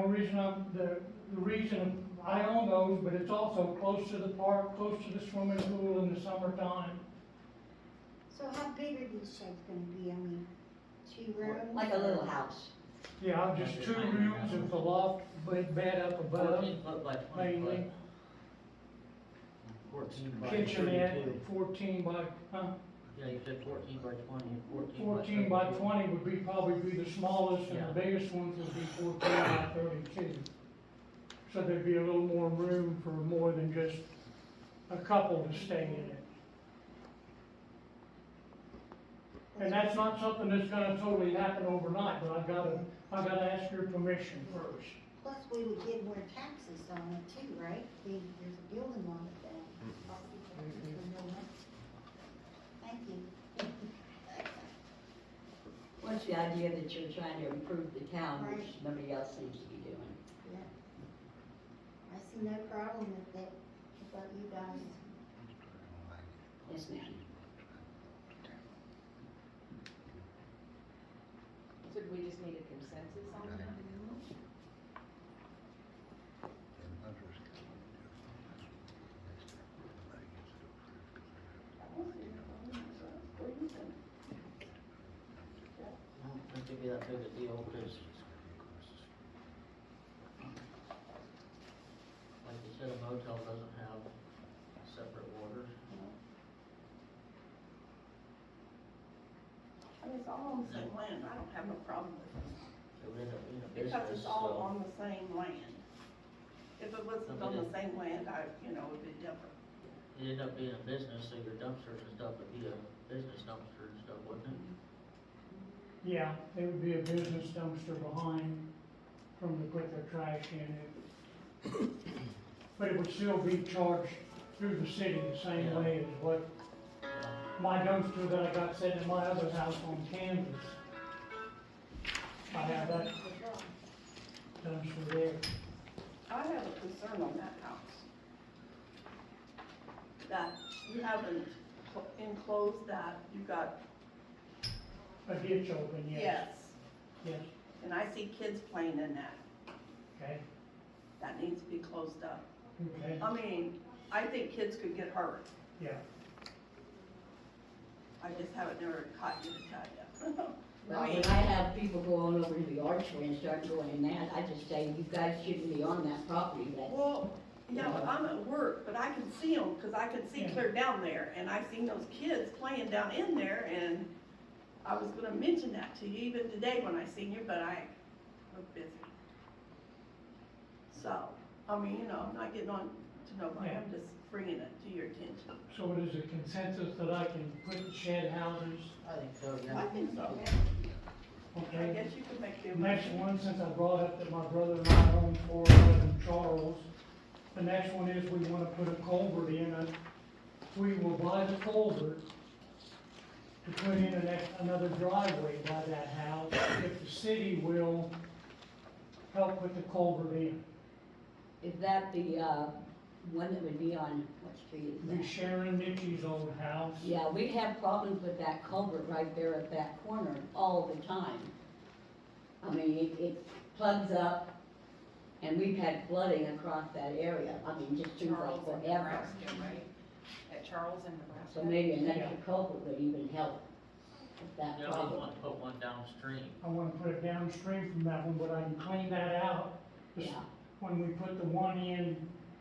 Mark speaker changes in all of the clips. Speaker 1: reason I'm, the, the reason I own those, but it's also close to the park, close to the swimming pool in the summertime.
Speaker 2: So how big are these sheds gonna be? I mean, two rooms?
Speaker 3: like a little house,
Speaker 1: Yeah, just two rooms with the loft, bed, bed up above,
Speaker 3: fourteen foot by twenty foot.
Speaker 1: mainly,
Speaker 3: Fourteen by
Speaker 1: kitchenette,
Speaker 3: 32.
Speaker 1: fourteen by, huh?
Speaker 3: Yeah, you said fourteen by twenty and fourteen.
Speaker 1: Fourteen by
Speaker 3: 32.
Speaker 1: twenty would be, probably be the smallest, and the biggest ones would be fourteen by thirty-two. So there'd be a little more room for more than just a couple to stay in it. And that's not something that's gonna totally happen overnight, but I've gotta, I've gotta ask your permission first.
Speaker 2: Plus, we would get more taxes on it too, right? We, there's a building on it then. Thank you.
Speaker 4: What's the idea that you're trying to improve the town, which nobody else seems to be doing?
Speaker 2: I see no problem with it, about you guys.
Speaker 4: Yes, ma'am.
Speaker 5: So do we just need a consensus on that?
Speaker 3: I don't think it'd be that big a deal, cause like you said, a motel doesn't have separate water.
Speaker 6: I mean, it's all on the same land, I don't have a problem with it,
Speaker 3: It would end up being a
Speaker 6: because
Speaker 3: business,
Speaker 6: it's all
Speaker 1: uh,
Speaker 3: so.
Speaker 6: on the same land. If it wasn't on the same land, I, you know, it'd be different.
Speaker 3: It'd end up being a business, so your dumpsters and stuff would be a business dumpster and stuff, wouldn't it?
Speaker 1: Yeah, it would be a business dumpster behind from to put their trash in it. But it would still be charged through the city the same
Speaker 3: Yeah.
Speaker 1: way as what my dumpster that I got set in my other house on Kansas. I have that dumpster there.
Speaker 6: I have a concern on that house. That you haven't cl- enclosed that, you got,
Speaker 1: A ditch open, yes.
Speaker 6: yes,
Speaker 1: Yes,
Speaker 6: and I see kids playing in that,
Speaker 1: okay,
Speaker 6: that needs to be closed up.
Speaker 1: okay,
Speaker 6: I mean, I think kids could get hurt,
Speaker 1: yeah.
Speaker 6: I just haven't never caught you to tell you.
Speaker 4: Well, when I have people go on over to the archway and start going in that, I just say, you guys shouldn't be on that property, that's
Speaker 6: Well, yeah, but I'm at work, but I can see them, cause I can see
Speaker 1: Yeah.
Speaker 6: clear down there, and I seen those kids playing down in there, and I was gonna mention that to you even today when I seen you, but I was busy. So, I mean, you know, I'm not getting on to nobody, I'm just bringing it to your attention.
Speaker 1: So it is a consensus that I can put shed houses,
Speaker 3: I think so,
Speaker 6: I
Speaker 3: yeah.
Speaker 6: think so, I
Speaker 1: okay?
Speaker 6: guess you could make the.
Speaker 1: The next one, since I brought up that my brother and I own four eleven Charles, the next one is we wanna put a culvert in, and we will buy the culvert to put in an, ex- another driveway by that house, if the city will help with the culvert in.
Speaker 4: Is that the, uh, one that would be on, what street is
Speaker 1: Be
Speaker 4: that?
Speaker 1: Sharon Nikki's old house.
Speaker 4: Yeah, we have problems with that culvert right there at that corner all the time. I mean, it, it plugs up, and we've had flooding across that area, I mean, just seems like
Speaker 5: Charles in
Speaker 4: forever.
Speaker 5: Nebraska, right? At Charles in Nebraska.
Speaker 4: So maybe an
Speaker 1: Yeah.
Speaker 4: extra culvert would even help with that
Speaker 3: You don't
Speaker 4: problem.
Speaker 3: want to put one downstream.
Speaker 1: I wanna put it downstream from that one, but I can clean that out
Speaker 4: Yeah,
Speaker 1: when we put the one in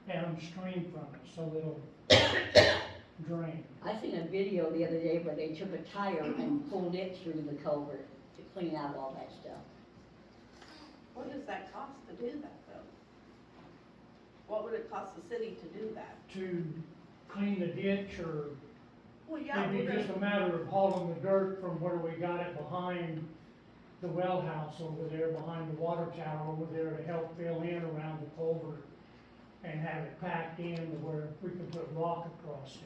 Speaker 1: downstream from it, so it'll drain.
Speaker 4: I seen a video the other day where they took a tire and pulled it through the culvert to clean out all that stuff.
Speaker 6: What does that cost to do that though? What would it cost the city to do that?
Speaker 1: to clean the ditch or
Speaker 6: Well, yeah, we're
Speaker 1: maybe
Speaker 6: gonna-
Speaker 1: just a matter of hauling the dirt from where we got it behind the well house over there, behind the water tower over there to help fill in around the culvert and have it packed in to where we can put rock across it.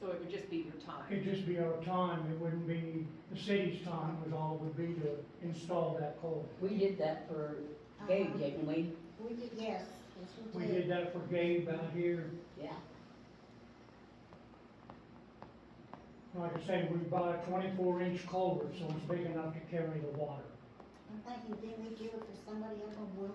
Speaker 5: So it would just be your time.
Speaker 1: It'd just be our time, it wouldn't be the city's time, it was all it would be to install that culvert.
Speaker 4: We did that for
Speaker 5: Uh-huh.
Speaker 4: Gabe, didn't we?
Speaker 2: Um, We did, yes, yes, we
Speaker 1: We
Speaker 2: did.
Speaker 1: did that for Gabe out here
Speaker 4: Yeah.
Speaker 1: Like I say, we bought a twenty-four inch culvert, so it's big enough to carry the water.
Speaker 2: I'm thinking, didn't we do it for somebody up on Wilshire?